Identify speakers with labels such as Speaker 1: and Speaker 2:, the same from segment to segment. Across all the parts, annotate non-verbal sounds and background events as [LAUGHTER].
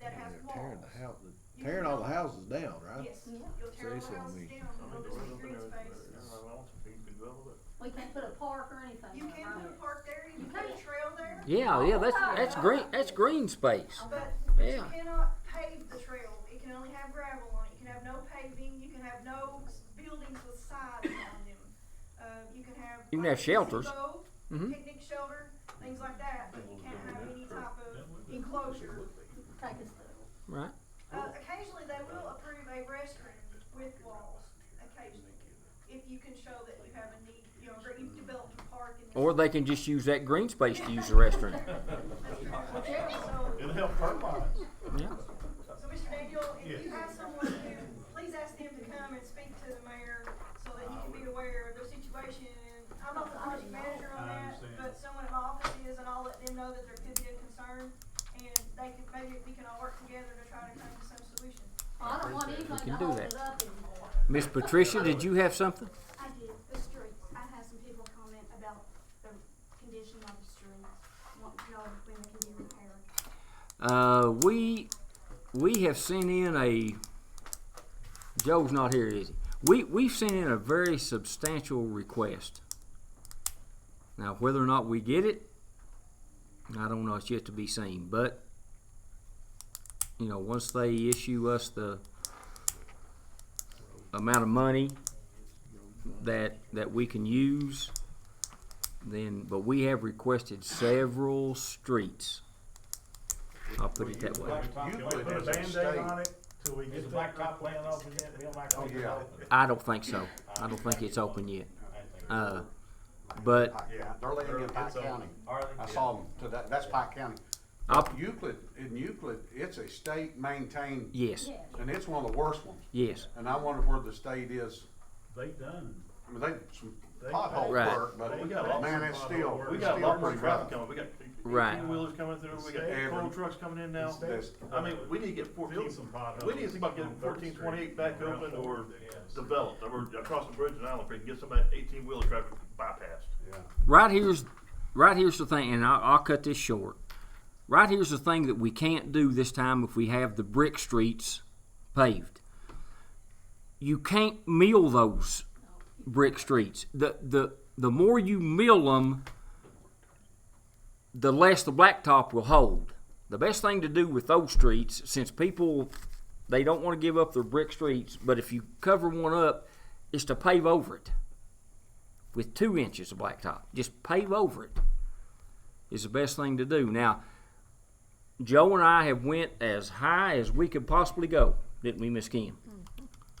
Speaker 1: tearing the
Speaker 2: walls.
Speaker 1: house, tearing all the houses down, right?
Speaker 2: Yes,
Speaker 3: Yeah.
Speaker 2: you'll tear all
Speaker 1: Say so,
Speaker 2: the
Speaker 1: I
Speaker 2: houses
Speaker 1: mean-
Speaker 2: down,
Speaker 4: I mean,
Speaker 2: and
Speaker 4: doors
Speaker 2: there'll be
Speaker 4: open,
Speaker 2: green
Speaker 4: everything,
Speaker 2: space.
Speaker 4: everybody wants it, people can double it.
Speaker 3: We can't put a park or anything.
Speaker 2: You can
Speaker 3: around
Speaker 2: put a
Speaker 3: it.
Speaker 2: park there, you
Speaker 3: You
Speaker 2: can put a
Speaker 3: can't.
Speaker 2: trail there,
Speaker 5: Yeah, yeah, that's that's green that's green space.
Speaker 2: but, but you
Speaker 5: Yeah.
Speaker 2: cannot pave the trail, it can only have gravel on it, you can have no paving, you can have no s- buildings with sides on them. Uh, you can have.
Speaker 5: You can
Speaker 2: like
Speaker 5: have shelters.
Speaker 2: gazebo,
Speaker 5: Mhm.
Speaker 2: Picnic shelter, things like that, but you can't have any type of enclosure.
Speaker 3: Take us through.
Speaker 5: Right.
Speaker 2: Uh, occasionally, they will approve a restroom with walls, occasionally, if you can show that you have a need, you know, or you've developed a park and.
Speaker 5: Or they can just use that green space to use the restroom.
Speaker 2: Yeah, So,
Speaker 4: It'll help termites.
Speaker 5: Yeah.
Speaker 2: so Mr. Daniel, if you have someone who, please ask them to come and speak to the mayor so that you can be aware of their situation. I'm not the project manager on
Speaker 6: I
Speaker 2: that,
Speaker 6: understand.
Speaker 2: but someone in my office is, and I'll let them know that there could be a concern. And they can, maybe we can all work together to try to come to some solution.
Speaker 3: Well, I don't want anybody
Speaker 5: can
Speaker 3: to
Speaker 5: do
Speaker 3: hold
Speaker 5: that.
Speaker 3: it up anymore.
Speaker 5: Miss Patricia, did you have something?
Speaker 7: I did, the streets. I had some people comment about the condition of the streets, wanting to know when they can be repaired.
Speaker 5: Uh, we we have sent in a Joe's not here, is he? We we've sent in a very substantial request. Now whether or not we get it, I don't know, it's yet to be seen. But you know, once they issue us the amount of money that that we can use, then but we have requested several streets. I'll put it that way.
Speaker 4: Can we put a Band-Aid on it till we get the blacktop laying off again, it'll like.
Speaker 1: Oh, yeah.
Speaker 5: I don't think so. I don't think it's open yet. Uh, but
Speaker 4: Yeah.
Speaker 8: They're laying in Pike
Speaker 4: It's open.
Speaker 8: County.
Speaker 6: Are they?
Speaker 8: I saw them today, that's Pike County.
Speaker 5: I'll,
Speaker 8: Euclid, in Euclid, it's a state maintained,
Speaker 5: yes,
Speaker 3: Yeah.
Speaker 8: and it's one of the worst ones.
Speaker 5: yes,
Speaker 8: And I wonder where the state is,
Speaker 6: They done.
Speaker 8: I mean, they, some
Speaker 4: They-
Speaker 8: pothole
Speaker 5: Right.
Speaker 8: work, but
Speaker 4: We got lots
Speaker 8: man,
Speaker 4: of
Speaker 8: it's
Speaker 4: pothole
Speaker 8: still,
Speaker 4: work.
Speaker 8: it's
Speaker 4: We
Speaker 6: We got a
Speaker 8: still
Speaker 6: lot more
Speaker 8: pretty
Speaker 6: traffic
Speaker 8: rough.
Speaker 6: coming, we got
Speaker 5: Right.
Speaker 6: two-wheelers coming through, we
Speaker 8: Every-
Speaker 6: got coal trucks coming in now.
Speaker 8: This-
Speaker 4: Every-
Speaker 6: I mean, we need to get fourteen,
Speaker 4: Build some potholes.
Speaker 6: we need to think about getting
Speaker 4: On Third
Speaker 6: fourteen twenty-eight
Speaker 4: Street.
Speaker 6: back open or
Speaker 4: Yes.
Speaker 6: developed, or across the bridge in Island Creek, get some of that eighteen-wheeler traffic bypassed.
Speaker 8: Yeah.
Speaker 5: right here's right here's the thing, and I'll, I'll cut this short. Right here's the thing that we can't do this time if we have the brick streets paved. You can't mill those brick streets. The the the more you mill them, the less the blacktop will hold. The best thing to do with those streets, since people they don't want to give up their brick streets, but if you cover one up, is to pave over it with two inches of blacktop. Just pave over it is the best thing to do. Now, Joe and I have went as high as we could possibly go, didn't we, Miss Kim?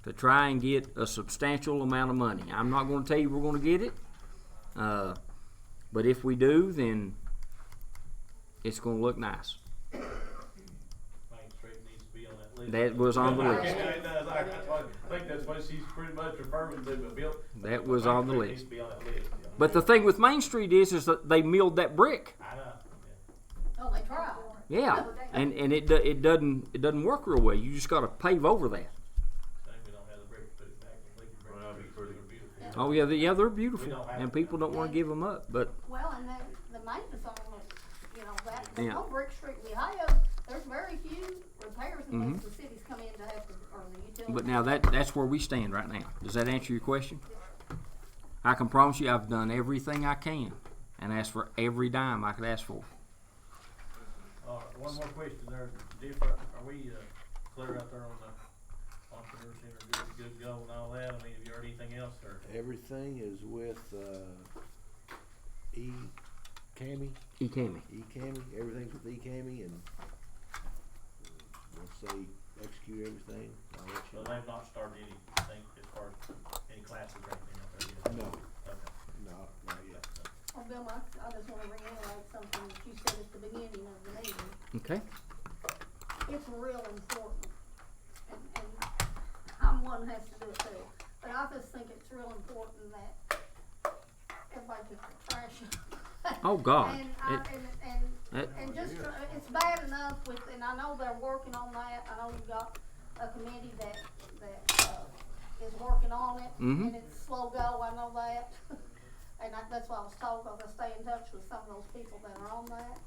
Speaker 5: To try and get a substantial amount of money. I'm not going to tell you we're going to get it, uh, but if we do, then it's going to look nice.
Speaker 9: Main Street needs to be on that list.
Speaker 5: That was on the list.
Speaker 9: Yeah, it does. I, that's what- I think that's what she's pretty much referring to, but Bill.
Speaker 5: That was on the
Speaker 9: Main Street Needs
Speaker 5: list.
Speaker 9: to be on that list, yeah.
Speaker 5: But the thing with Main Street is, is that they milled that brick.
Speaker 9: I know.
Speaker 3: Oh, they tried.
Speaker 5: Yeah, and and it do- it doesn't it doesn't work real well. You just got to pave over that.
Speaker 9: Shame we don't have the brick to put it back in. Lincoln Brick
Speaker 4: Well, that'd be
Speaker 9: Street.
Speaker 4: pretty-
Speaker 9: They're beautiful.
Speaker 5: Oh yeah, they, yeah, they're
Speaker 9: We
Speaker 5: beautiful,
Speaker 9: don't have
Speaker 5: and
Speaker 9: them.
Speaker 5: people don't want to give them up. But
Speaker 3: Well, and then the maintenance on them, you know, that, the
Speaker 5: Yeah.
Speaker 3: whole Brick Street in Ohio, there's very few repairs unless the cities come in to have to, or the utilities.
Speaker 5: Mm-hmm. but now that that's where we stand right now. Does that answer your question? I can promise you, I've done everything I can, and asked for every dime I could ask for.
Speaker 9: All right, one more question there. Jeff, are are we, uh, clear out there on the entrepreneurship or good, good go and all that? I mean, have you heard anything else or?
Speaker 1: Everything is with, uh, E, Cammy,
Speaker 5: E. Cammy.
Speaker 1: E. Cammy, everything's with E. Cammy and uh, once they execute everything, I'll let you
Speaker 9: Well,
Speaker 1: know.
Speaker 9: they've not started anything as far as any classes or anything out there yet?
Speaker 1: No,
Speaker 9: Okay.
Speaker 1: no, not yet.
Speaker 3: Well, Oh, Bill, I, I just wanna reiterate something that you said at the beginning of the meeting.
Speaker 5: Okay.
Speaker 3: it's real important. And, and I'm one who has to do it too, but I just think it's real important that everybody gets their trash.
Speaker 5: Oh, God.
Speaker 3: And I,
Speaker 5: It-
Speaker 3: and, and,
Speaker 5: That-
Speaker 3: and just, uh, it's bad enough with, and I know they're working on that, I know you've got a committee that, that, uh, is working on it.
Speaker 5: Mhm.
Speaker 3: And it's slow go, I [LAUGHS] know that, and I, that's why I was told, 'cause I stay in touch with some of those people that are on that.